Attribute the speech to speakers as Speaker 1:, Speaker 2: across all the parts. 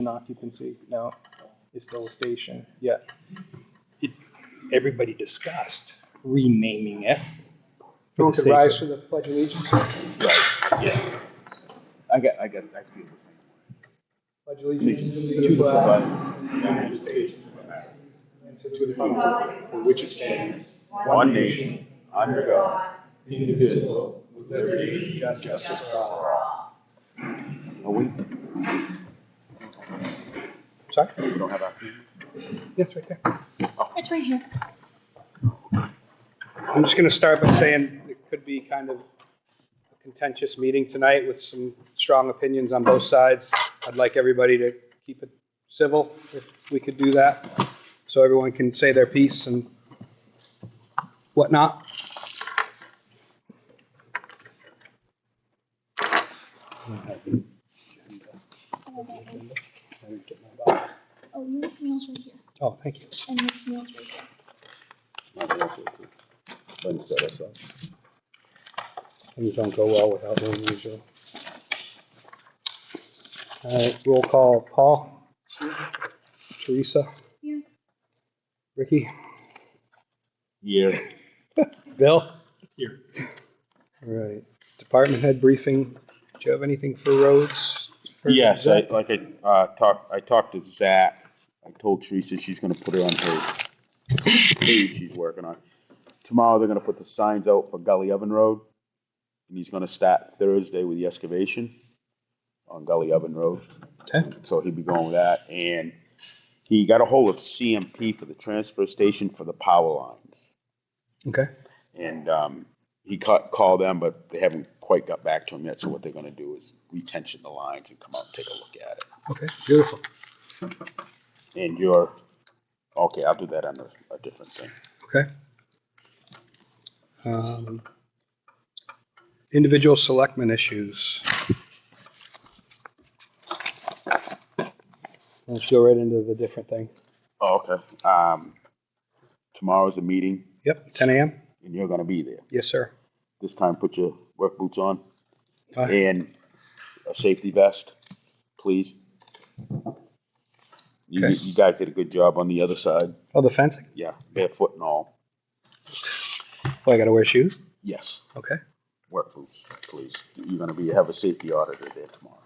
Speaker 1: an occupancy now, it's still a station, yeah. It- Everybody discussed renaming it. for
Speaker 2: Everyone
Speaker 1: the
Speaker 2: could
Speaker 1: sake
Speaker 2: rise
Speaker 1: of-
Speaker 2: to the pledge of allegiance.
Speaker 1: Yeah,
Speaker 3: I guess, I guess that's beautiful.
Speaker 2: Pledge allegiance
Speaker 1: to the flag
Speaker 2: United States of America, and to the republic
Speaker 4: for which it stands,
Speaker 3: One nation, under God.
Speaker 2: indivisible, with liberty and
Speaker 4: justice for all.
Speaker 3: Are we,
Speaker 2: Sorry?
Speaker 3: we don't have our.
Speaker 2: Yes, right there.
Speaker 4: It's right here.
Speaker 2: I'm just gonna start by saying it could be kind of a contentious meeting tonight with some strong opinions on both sides. I'd like everybody to keep it civil if we could do that, so everyone can say their piece and whatnot.
Speaker 4: Oh, your meal's right here,
Speaker 2: Oh, thank you.
Speaker 4: and this meal's right here.
Speaker 2: Things don't go well without one usually. All right, roll call, Paul? Teresa?
Speaker 4: Here.
Speaker 2: Ricky?
Speaker 3: Yeah.
Speaker 2: Bill?
Speaker 1: Here.
Speaker 2: All right, department head briefing, do you have anything for roads? For
Speaker 3: Yes, I,
Speaker 2: Zach?
Speaker 3: like I, uh, talked, I talked to Zach, I told Teresa she's gonna put it on her page she's working on. Tomorrow, they're gonna put the signs out for Gully Oven Road, and he's gonna start Thursday with the excavation on Gully Oven Road.
Speaker 2: Okay.
Speaker 3: So he'll be going with that, and he got a hold of CMP for the transfer station for the power lines.
Speaker 2: Okay,
Speaker 3: And um, he ca- called them, but they haven't quite got back to him yet. So what they're going to do is retension the lines and come out and take a look at it.
Speaker 2: okay, beautiful.
Speaker 3: And you're okay. I'll do that on a, a different thing.
Speaker 2: Okay. Um, Individual selectmen issues. Let's go right into the different thing.
Speaker 3: Oh, okay. Um, tomorrow's a meeting,
Speaker 2: Yep, ten AM?
Speaker 3: and you're going to be there.
Speaker 2: Yes, sir.
Speaker 3: This time, put your work boots on
Speaker 2: Fine.
Speaker 3: and a safety vest, please. You,
Speaker 2: Okay.
Speaker 3: you guys did a good job on the other side.
Speaker 2: Oh, the fencing?
Speaker 3: Yeah, barefoot and all.
Speaker 2: Oh, I gotta wear shoes?
Speaker 3: Yes.
Speaker 2: Okay.
Speaker 3: work boots, please. You're gonna be, have a safety auditor there tomorrow.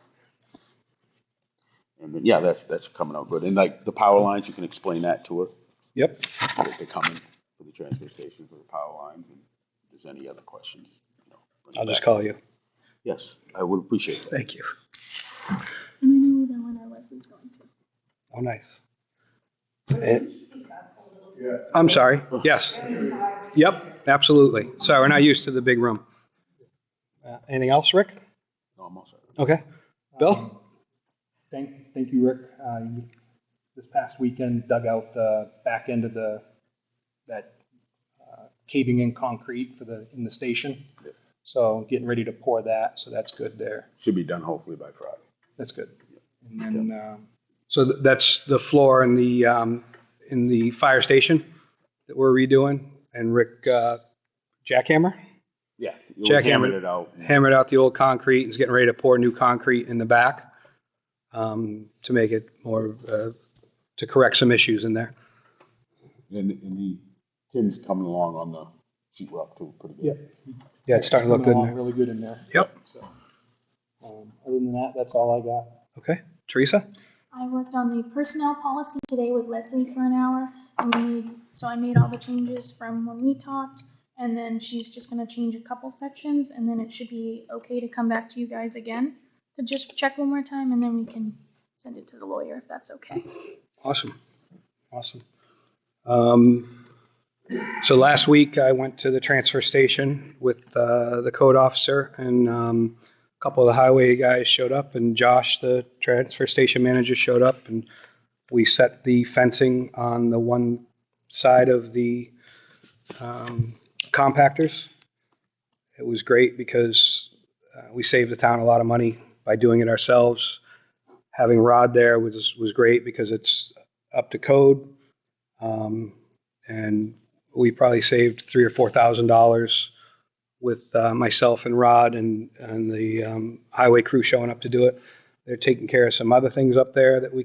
Speaker 3: And then, yeah, that's, that's coming out good. And like the power lines, you can explain that to her,
Speaker 2: Yep.
Speaker 3: that they're coming for the transfer station for the power lines. And If there's any other questions, you know. bring it
Speaker 2: I'll just
Speaker 3: back.
Speaker 2: call you.
Speaker 3: Yes, I would appreciate that.
Speaker 2: Thank you.
Speaker 4: And I know that one our Leslie's going to.
Speaker 2: Oh, nice. Eh, I'm sorry, yes. Yep, absolutely. Sorry, we're not used to the big room. Uh, Anything else, Rick?
Speaker 3: No, I'm all set.
Speaker 2: Okay. Bill?
Speaker 1: um, thank, thank you, Rick. Uh, you- This past weekend dug out the back end of the, that uh, caving in concrete for the, in the station.
Speaker 3: Yeah.
Speaker 1: So getting ready to pour that, so that's good there,
Speaker 3: Should be done hopefully by Friday.
Speaker 1: that's good. And then, um,
Speaker 2: So th- that's the floor in the, um, in the fire station that we're redoing, and Rick uh, jackhammer?
Speaker 3: Yeah. we
Speaker 2: Jack
Speaker 3: hammered
Speaker 2: Hammond.
Speaker 3: It out.
Speaker 2: hammered out the old concrete and is getting ready to pour new concrete in the back um, to make it more, uh, to correct some issues in there.
Speaker 3: And, and the Tim's coming along on the sheet rock too, pretty good.
Speaker 1: Yeah.
Speaker 2: Yeah, it's starting to look
Speaker 1: coming
Speaker 2: good
Speaker 1: along
Speaker 2: in there.
Speaker 1: Really good in there.
Speaker 2: Yep.
Speaker 1: So, um, Other than that, that's all I got.
Speaker 2: Okay, Teresa?
Speaker 4: I worked on the personnel policy today with Leslie for an hour. and We made, so I made all the changes from when we talked, and then she's just gonna change a couple sections, and then it should be okay to come back to you guys again to just check one more time, and then we can send it to the lawyer if that's okay.
Speaker 2: Awesome, awesome. Um, So last week, I went to the transfer station with uh, the code officer, and um, a couple of the highway guys showed up, and Josh, the transfer station manager, showed up, and we set the fencing on the one side of the um, compactors. It was great because uh, we saved the town a lot of money by doing it ourselves. Having Rod there was, was great because it's up to code. Um, and we probably saved three or four thousand dollars with uh, myself and Rod and, and the um, highway crew showing up to do it. They're taking care of some other things up there that we